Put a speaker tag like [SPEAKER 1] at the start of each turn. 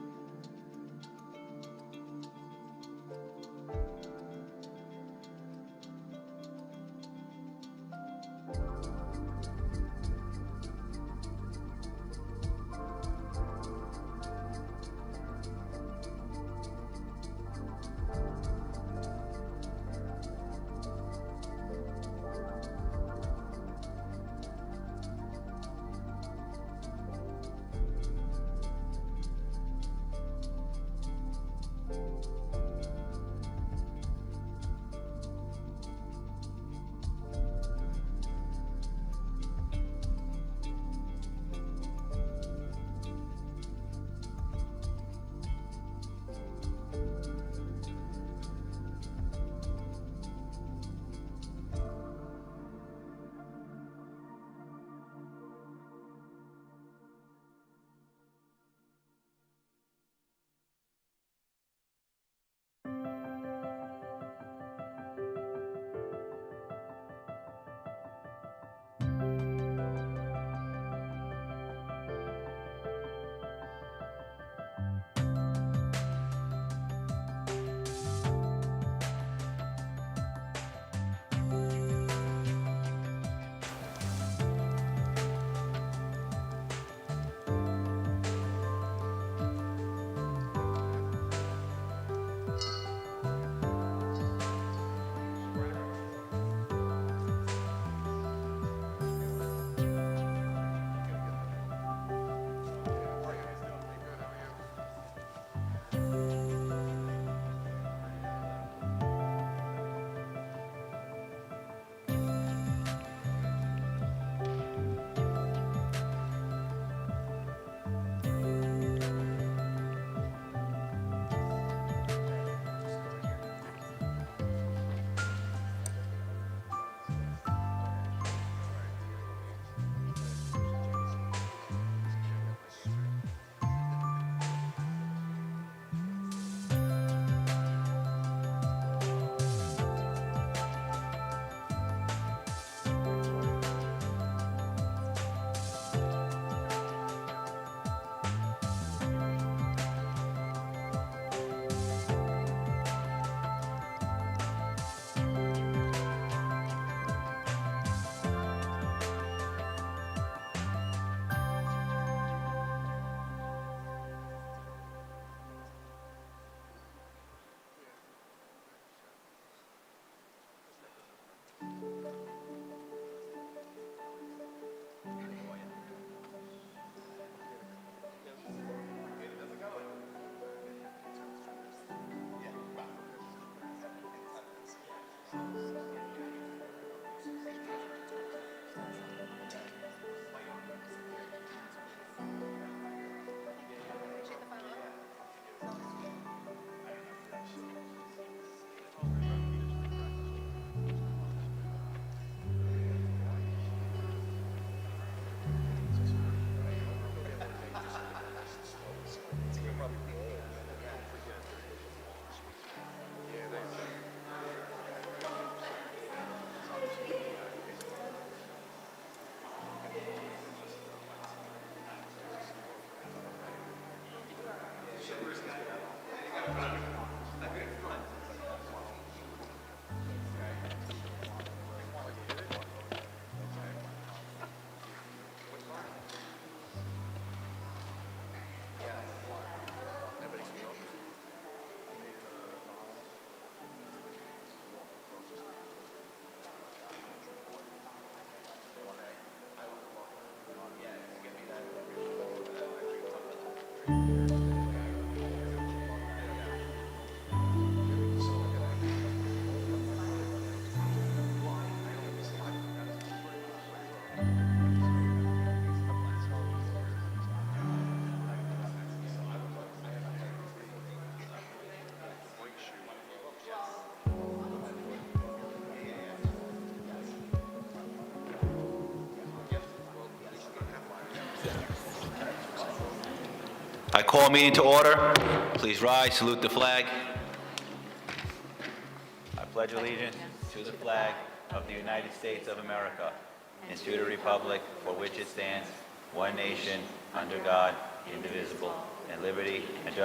[SPEAKER 1] I call meeting to order. Please rise, salute the flag. I pledge allegiance to the flag of the United States of America and to the republic for which it stands, one nation, under God, indivisible, and liberty and justice